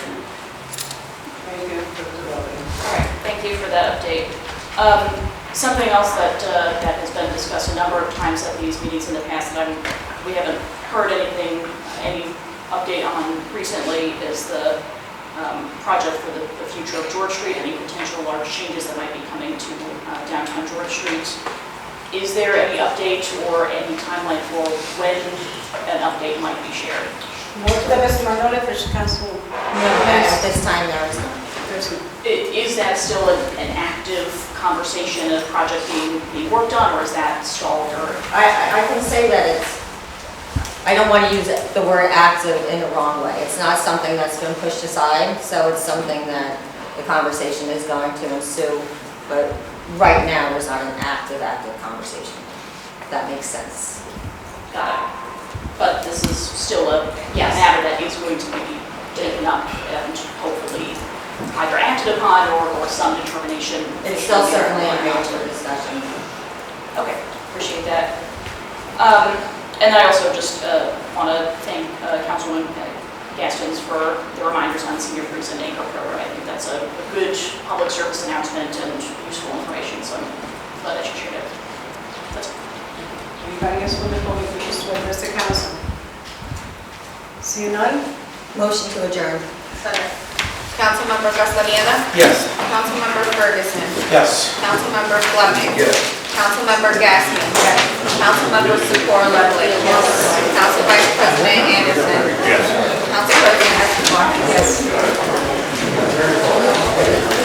that update. Um, Something else that, uh, that has been discussed a number of times at these meetings in the past that I'm, we haven't heard anything, any update on recently is the um, project for the the future of George Street, any potential large changes that might be coming to uh, downtown George Street. Is there any update or any timeline for when an update might be shared? Move the Mr. Manola First Council. At this time, there is none. I- Is that still an an active conversation, a project being, being worked on, or is that stalled or? I, I- I can say that it's, I don't want to use the word active in the wrong way. It's not something that's been pushed aside, so it's something that the conversation is going to ensue. But right now, there's not an active, active conversation. If That makes sense. Got it. But this is still a Yes. matter that is going to be taken up and hopefully either acted upon or, or some determination. It's still should be certainly a made. major discussion. Okay, appreciate that. Um, And I also just want to thank uh, Councilwoman Gastins for the reminders on senior cruise and anchor program. I think that's a a good public service announcement and useful information, so I'm glad that you shared it. That's Anybody else from the public wishes to address the council? Seeing none? Motion to adjourn. Councilmember Castellana, Yes. Councilmember Ferguson, Yes. Councilmember Fleming, Yes. Councilmember Gaskin, Councilmember Secor Ludwig, Council Vice President Anderson, Council President Escobar. Yes.